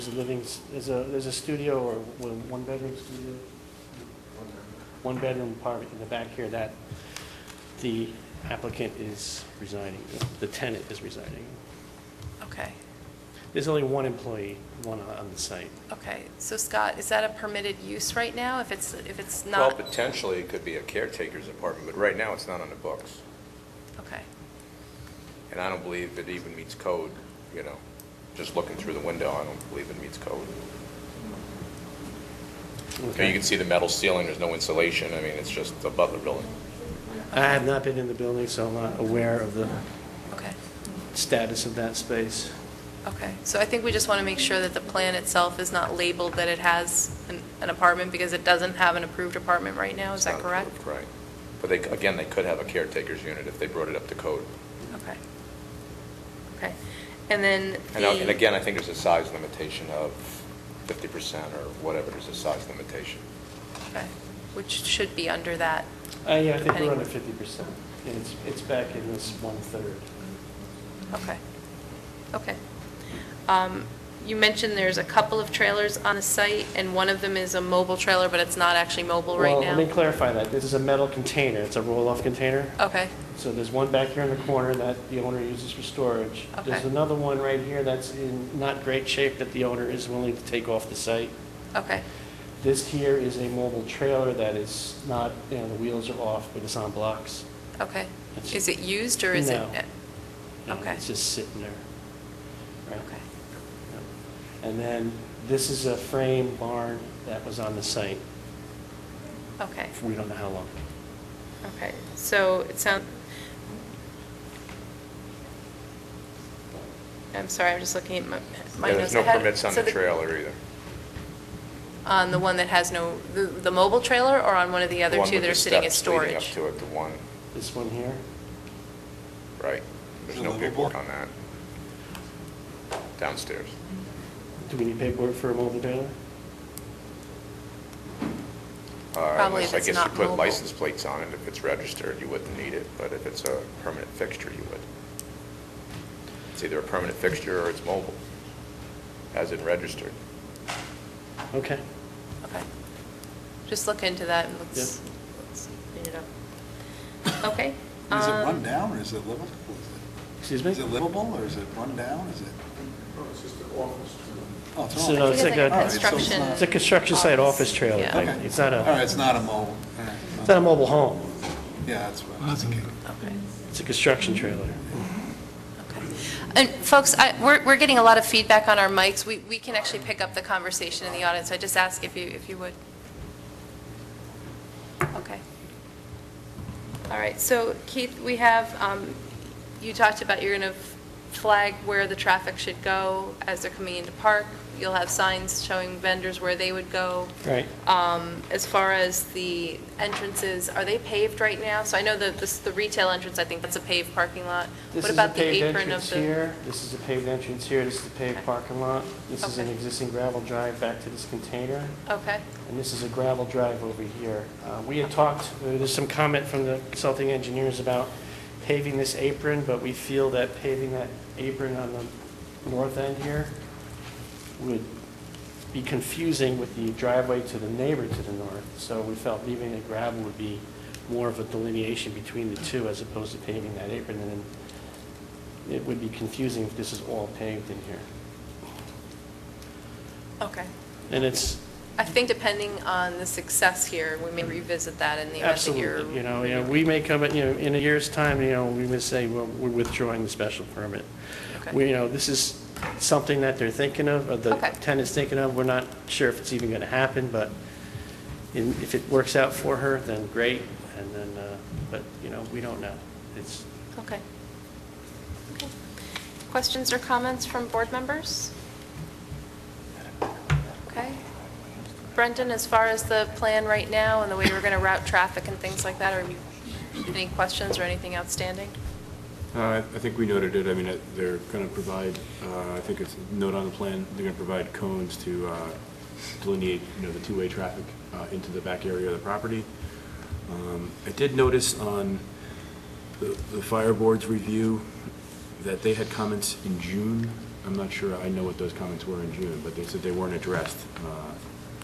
There's a living, there's a, there's a studio or one- one-bedroom studio? One-bedroom apartment in the back here that the applicant is resigning, the tenant is resigning. Okay, There's only one employee, one on on the site. okay. So Scott, is that a permitted use right now? If it's, if it's Well, not? potentially, it could be a caretaker's apartment, but right now, it's not on the books. Okay, And I don't believe it even meets code, you know? Just looking through the window, I don't believe it meets code. You know, You can see the metal ceiling, there's no insulation, I mean, it's just a Butler building. I have not been in the building, so I'm not aware of the okay, status of that space. okay. So I think we just want to make sure that the plan itself is not labeled that it has an- an apartment because it doesn't have an approved apartment right now, Oh, is It's that not correct? approved, Right. But they, again, they could have a caretaker's unit if they brought it up to code. Okay. Okay. And then And I- and the- again, I think there's a size limitation of 50% or whatever, there's a size limitation. Okay, which should be under that. Uh, yeah, I think we're Depending- under fifty percent, and it's, it's back in this one-third. Okay, okay. Um, You mentioned there's a couple of trailers on the site, and one of them is a mobile trailer, but it's not actually mobile right Well, let me now? clarify that. This is a metal container. It's a roll-off container. Okay, So there's one back here in the corner that the owner uses for storage. There's Okay. another one right here that's in not great shape that the owner is willing to take off the site. okay, This here is a mobile trailer that is not, you know, the wheels are off, but it's on blocks. okay. It's- Is it used, or is it? No. And Okay. It's just sitting there. Right? Okay, Yep. And then this is a frame barn that was on the site. okay, for We don't know how long. okay. So it sounds, I'm sorry, I'm just looking at my my Yeah, notes. There's no I had- permits on so the trailer either. On the one that has no, the- the mobile trailer, or on one of the The other one two with that the are sitting as steps leading storage? up to it, the one, This one here, right. There's no paperwork on that. Downstairs. do we need paperwork for a mobile trailer? Uh, Probably if unless I it's guess not you put mobile. license plates on it, if it's registered, you wouldn't need it, but if it's a permanent fixture, you would. It's either a permanent fixture or it's mobile, as in registered. Okay. Okay. Just look into that and let's, Yep. let's clean it up. Okay. Is it um, run down or is it livable? Is Excuse it- me? Is it livable or is it run down? Is it? Oh, it's just So an no, I office. it's think like it's a- like a Alright, so it's construction. not- It's a construction site office trailer Yeah. thing. Okay. It's not a- All right, it's not a mobile. All right. It's not a mobile home. Yeah, that's what I was thinking. Okay, It's a construction trailer. okay. And folks, I, we're, we're getting a lot of feedback on our mics. We, we can actually pick up the conversation in the audience. I just ask if you, if you would. Okay. All right, so Keith, we have, um, you talked about you're going to flag where the traffic should go as they're coming into park. You'll have signs showing vendors where they would go. Right. Um, As far as the entrances, are they paved right now? So I know that this, the retail entrance, I think that's a paved parking lot. This What is a about the paved apron of entrance the? here. This is a paved entrance here. This is the paved Okay. parking lot. This is an Okay. existing gravel drive back to this container. Okay, And this is a gravel drive over here. Uh, We had talked, uh, there's some comment from the consulting engineers about paving this apron, but we feel that paving that apron on the north end here would be confusing with the driveway to the neighbor to the north. So we felt leaving the gravel would be more of a delineation between the two as opposed to paving that apron. And then it would be confusing if this is all paved in here. okay. And it's, I think depending on the success here, we may revisit that in the event that you're. Absolutely, you know, you know, we may come, at- you know, in a year's time, you know, we may say, well, we're withdrawing the special permit. Okay. We, you know, this is something that they're thinking of, or the Okay. tenant's thinking of, we're not sure if it's even going to happen, but in- if it works out for her, then great, and then, uh, but, you know, we don't know. It's, Okay. Okay. Questions or comments from board members? Okay. Brendan, as far as the plan right now and the way we're going to route traffic and things like that, are you, any questions or anything outstanding? Uh, I think we noted it, I mean, uh, they're going to provide, uh, I think it's a note on the plan, they're going to provide cones to uh, delineate, you know, the two-way traffic uh, into the back area of the property. Um, I did notice on the the fire board's review that they had comments in June I'm not sure, I know what those comments were in June, but they said they weren't addressed uh,